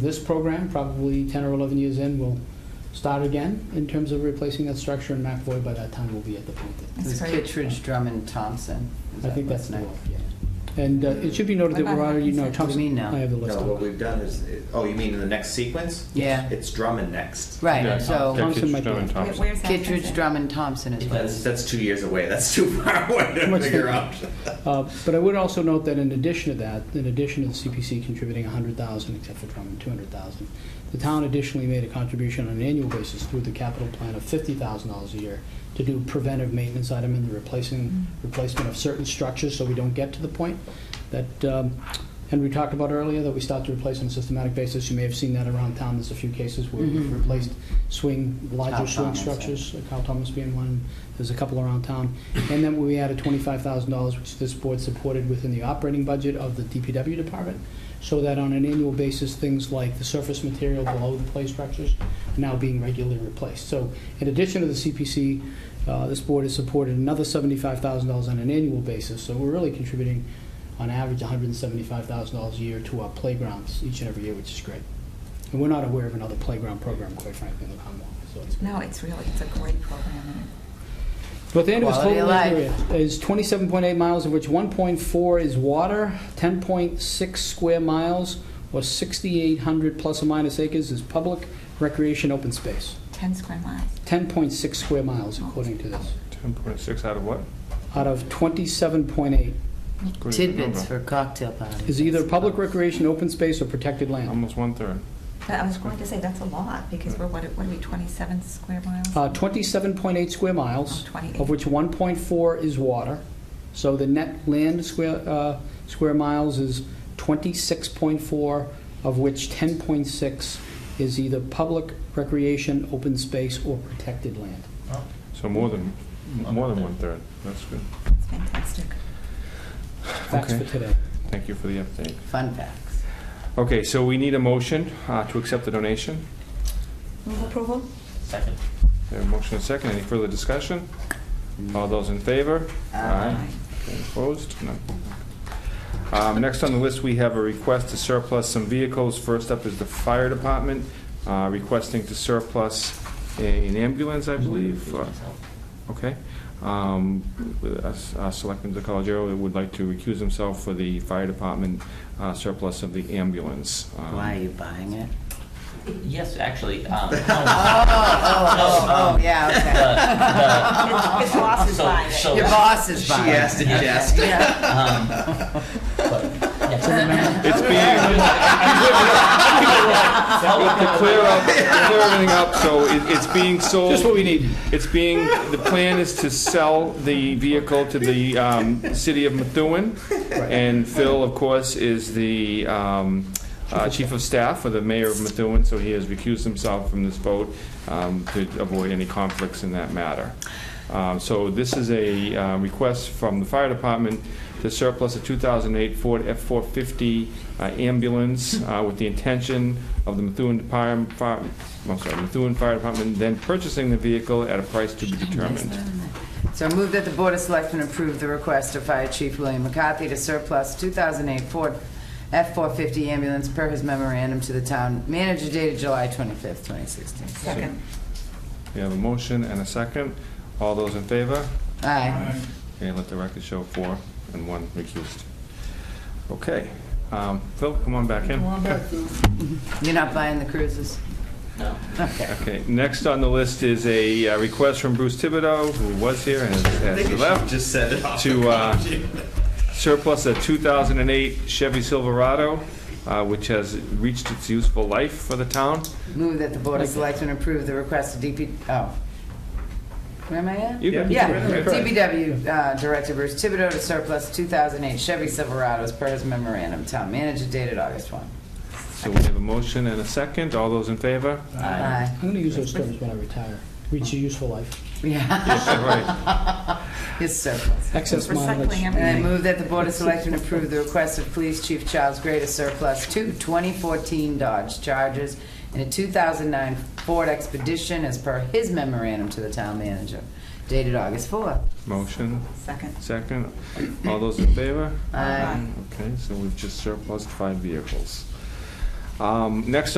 this program, probably 10 or 11 years in, will start again in terms of replacing that structure, and Matt Floyd by that time will be at the point that, That's It's great. Kittredge, Drummond, Thompson. Is I that think what's that's the next? one, and uh, it should be noted that we're already, no, What do you mean Thompson, now? I have the list. No, up. what we've done is, oh, you mean in the next sequence? Yeah. It's Drummond next. Yeah, Right, yeah, so Thompson Kittredge, might be- Drummond, Where- Thompson. Where's that? Kittredge, Drummond, Thompson is what. That's, that's two years away. That's too far away Too to much figure time. out. Uh, But I would also note that in addition to that, in addition to the CPC contributing 100,000, except for Drummond, 200,000, the town additionally made a contribution on an annual basis through the capital plan of $50,000 a year to do preventive maintenance item and the replacing, replacement of certain structures so we don't get to the point that um, Henry talked about earlier, that we start to replace on a systematic basis. You may have seen that around town. There's a few cases where we've Mhm. replaced swing, larger Cow swing tunnels, yeah. structures uh, Kyle Thomas being one, there's a couple around town. And then we added twenty-five thousand dollars, which this board supported within the operating budget of the DPW department, so that on an annual basis, things like the surface material below the play structures are now being regularly replaced. So in addition to the CPC, uh, this board has supported another seventy-five thousand dollars on an annual basis, so we're really contributing on average hundred and seventy-five thousand dollars a year to our playgrounds each and every year, which is great. And we're not aware of another playground program, quite frankly, in the Commonwealth, so it's. No, it's really, it's a great program. But the end of his Quality total of land area life. is 27.8 miles, of which 1.4 is water, 10.6 square miles, or 6,800 plus or minus acres is public recreation open space. 10 square miles. 10.6 square miles, according to this, 10.6 out of what? out of 27.8 Good Tidbits number. for cocktail parties. is either public recreation, open space, or protected land. Almost one-third. But I was going to say, that's a lot, because we're, what are what are we, 27 square miles? Uh, 27.8 square miles, Oh, 28. of which 1.4 is water. So the net land square, uh, square miles is 26.4, of which 10.6 is either public recreation, open space, or protected land. So more than, more than one-third. That's good. It's fantastic. Facts Okay. for today. Thank you for the update. Fun facts. Okay, so we need a motion uh, to accept the donation. Move approval? Second. We have a motion and second. Any further discussion? All those in favor? Okay, Opposed? None. Um, Next on the list, we have a request to surplus some vehicles. First up is the fire department uh, requesting to surplus a- an ambulance, I believe. Uh, Okay. Um, As uh, Selectman DeColiero would like to recuse himself for the fire department uh, surplus of the ambulance. Um, Why are you buying it? Yes, actually. um, no. um, Oh, oh, oh, yeah, okay. The- the- His- his boss is so- buying it. so, Your boss is She buying uh, it. asked and she asked. Yeah. um, but, yeah. It's being, to clear up, to clear everything up, so it- it's being sold. Just what we need. It's being, the plan is to sell the vehicle to the um, city of Methuen, and Phil, of course, is the um, uh, chief of staff for the mayor of Methuen, so he has recused himself from this vote um, to avoid any conflicts in that matter. Um, So this is a uh, request from the fire department to surplus a 2008 Ford F-450 uh, ambulance uh, with the intention of the Methuen Department, Fire- I'm sorry, Methuen Fire Department then purchasing the vehicle at a price to be determined. So move that the Board of Selectmen approve the request of Fire Chief William McCarthy to surplus 2008 Ford F-450 ambulance per his memorandum to the town manager dated July 25th, 2016. Second. We have a motion and a second. All those in favor? Aye. Okay, let the record show four and one recused. Okay. Um, Phil, come on back in. You're not buying the cruises? No. Okay. Okay, next on the list is a uh, request from Bruce Thibodeau, who was here and I has think has you should left, just send it off. to uh, surplus a 2008 Chevy Silverado, uh, which has reached its useful life for the town. Move that the Board of Selectmen approve the request of DP, oh. Where am I at? You can- Yeah, Yeah. DPW uh, Director Bruce Thibodeau to surplus 2008 Chevy Silverados per his memorandum, town manager dated August 1. So we have a motion and a second. All those in favor? Aye. Aye. I'm going to use those terms when I retire. Reach a useful life. Yeah, Right. it's surplus. Excess mileage. Recycling And I everything. move that the Board of Selectmen approve the request of Police Chief Charles Gray to surplus two 2014 Dodge Chargers and a 2009 Ford Expedition as per his memorandum to the town manager dated August 4th. Motion, Second. second. All those in favor? Aye. Okay, so we've just surplused five vehicles. Um, Next